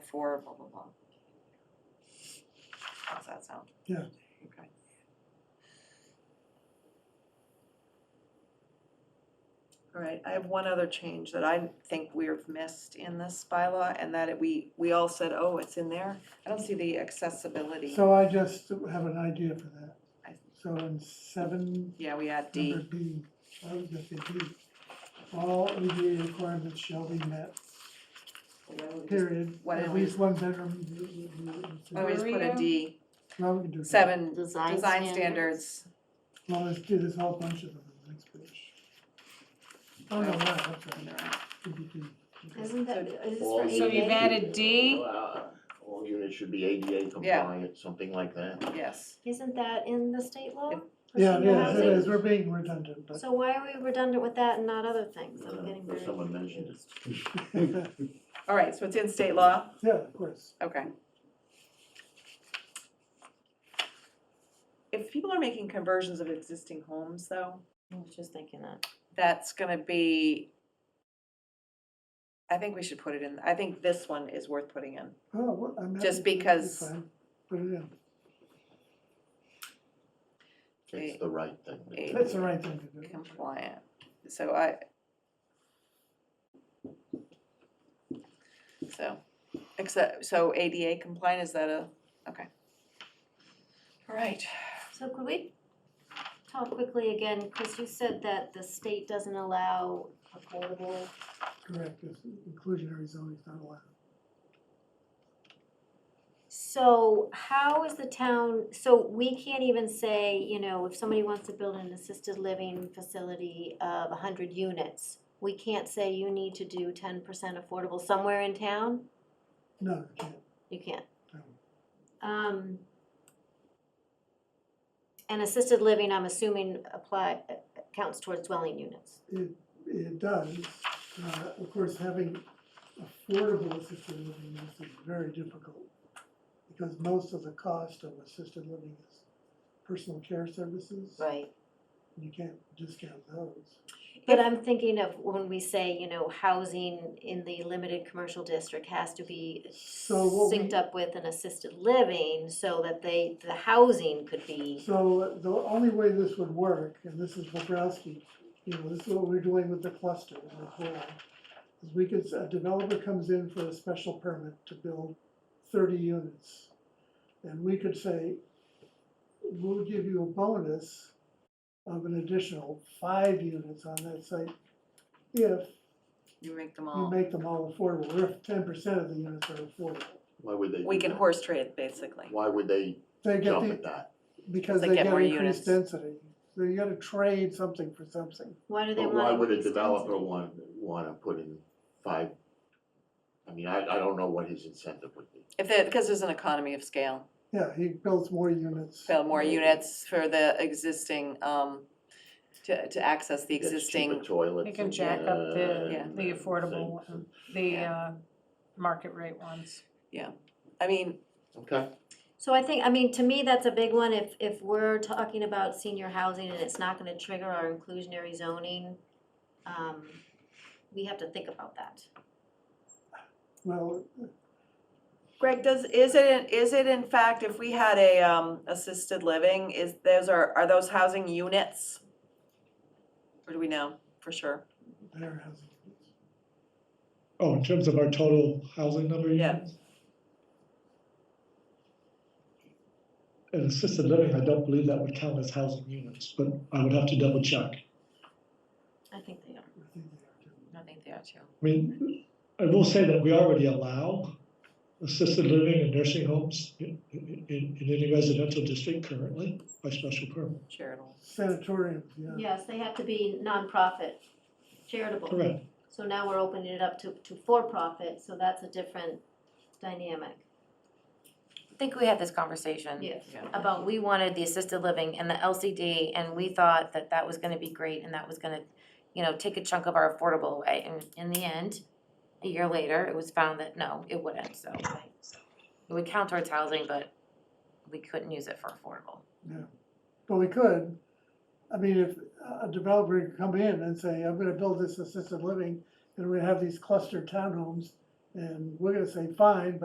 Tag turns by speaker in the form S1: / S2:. S1: for blah, blah, blah. How's that sound?
S2: Yeah.
S1: Okay. All right, I have one other change that I think we've missed in this bylaw, and that it- we, we all said, oh, it's in there. I don't see the accessibility.
S2: So I just have an idea for that.
S1: I-
S2: So in seven,
S1: Yeah, we add
S2: number
S1: D,
S2: B, I was gonna say D, all ADA requirements shall be met, period.
S1: why don't
S2: At
S1: we-
S2: least one
S1: Oh,
S2: bedroom.
S1: I always Oh, put
S3: Where
S1: a
S3: are
S1: D,
S2: Well, we can do that.
S1: seven,
S3: Design
S1: design standards.
S2: Well, let's do this whole bunch of them on the next page. Oh, no, no, that's
S1: And
S2: right,
S1: they're out.
S2: PPP.
S3: Isn't that, is this
S4: All
S3: for ADA?
S4: units
S3: So you've
S4: should-
S3: added D?
S4: uh, All units should be ADA compliant, something like that.
S1: Yes,
S3: Isn't that in the state law?
S1: It-
S3: for
S2: Yeah,
S3: senior
S2: yeah, it
S3: housing?
S2: is, we're being redundant, but.
S3: So why are we redundant with that and not other things?
S4: Uh,
S3: I'm getting
S4: but
S3: very.
S4: someone mentioned it.
S3: confused.
S1: all right, so it's in state law,
S2: Yeah, of course.
S1: okay. If people are making conversions of existing homes though,
S3: I was just thinking that.
S1: that's gonna be. I think we should put it in, I think this one is worth putting in,
S2: Oh, well, I'm happy.
S1: Just
S2: to- that's
S1: because-
S2: fine. Put it in,
S4: It's the right thing. to do.
S1: Eight.
S2: that's the right thing to do.
S1: compliant, so I. So, except, so ADA compliant, is that a, okay. All right,
S3: So could we talk quickly again, Chris, you said that the state doesn't allow affordable,
S2: Correct, it's inclusionary zoning is not allowed.
S3: so how is the town, so we can't even say, you know, if somebody wants to build an assisted living facility of a hundred units, we can't say you need to do ten percent affordable somewhere in town?
S2: No, you can't.
S3: You can't.
S2: No. Oh.
S3: Um, and assisted living, I'm assuming apply, uh, counts towards dwelling units.
S2: It does, uh, of course, having affordable assisted living is very difficult. Because most of the cost of assisted living is personal care services.
S3: Right.
S2: and You can't discount those.
S3: But I'm thinking of when we say, you know, housing in the limited commercial district has to be
S2: So what we-
S3: synced up with an assisted living so that they, the housing could be,
S2: So the only way this would work, and this is Bobrowski, you know, this is what we're doing with the cluster as well. Is we could, a developer comes in for a special permit to build thirty units. And we could say, we'll give you a bonus of an additional five units on that site. If
S1: you make them
S2: you
S1: all,
S2: make them all affordable, or if ten percent of the units are affordable.
S4: Why would they do
S1: we can
S4: that?
S1: horse trade basically.
S4: Why would they
S2: They get
S4: jump at
S2: the,
S4: that?
S2: because
S1: They
S2: they
S1: get
S2: get
S1: more units.
S2: increased density, so you gotta trade something for something.
S3: why do they
S4: But
S3: want?
S4: why would a
S3: increased
S4: developer
S3: density?
S4: want, wanna put in five? I mean, I, I don't know what his incentive would be.
S1: If there, because there's an economy of scale,
S2: Yeah, he builds more units.
S1: sell more
S4: Right.
S1: units for the existing, um, to, to access the
S4: He gets
S1: existing,
S4: cheaper toilets.
S5: We can
S4: and,
S5: jack up the-
S4: uh,
S1: Yeah.
S4: and
S5: the affordable
S4: things.
S5: one, the
S1: Yeah.
S5: uh, market rate ones.
S1: I mean,
S4: Okay,
S3: So I think, I mean, to me, that's a big one, if, if we're talking about senior housing and it's not gonna trigger our inclusionary zoning, um, we have to think about that.
S2: Well,
S1: Greg, does, is it, is it in fact, if we had a, um, assisted living, is, those are, are those housing units? Or do we know for sure?
S2: there has, it.
S6: Oh, in terms of our total housing number? you
S1: Yeah.
S6: mean? And assisted living, I don't believe that would count as housing units, but I would have to double check. I
S3: I think they are.
S2: I think they are too.
S1: I think they are too.
S6: mean, I will say that we already allow assisted living and nursing homes in, in, in any residential district currently by special permit.
S1: Charitable.
S2: Sanatoriums, yeah.
S3: Yes, they have to be nonprofit, charitable.
S6: Correct.
S3: So now we're opening it up to, to for-profit, so that's a different dynamic.
S7: I think we had this conversation.
S3: Yes.
S1: Yeah.
S7: About we wanted the assisted living and the LCD, and we thought that that was gonna be great, and that was gonna, you know, take a chunk of our affordable away, and in the end, a year later, it was found that no, it wouldn't, so. It would count towards housing, but we couldn't use it for affordable.
S2: But we could, I mean, if a developer could come in and say, I'm gonna build this assisted living, and we're gonna have these clustered townhomes, and we're gonna say, fine,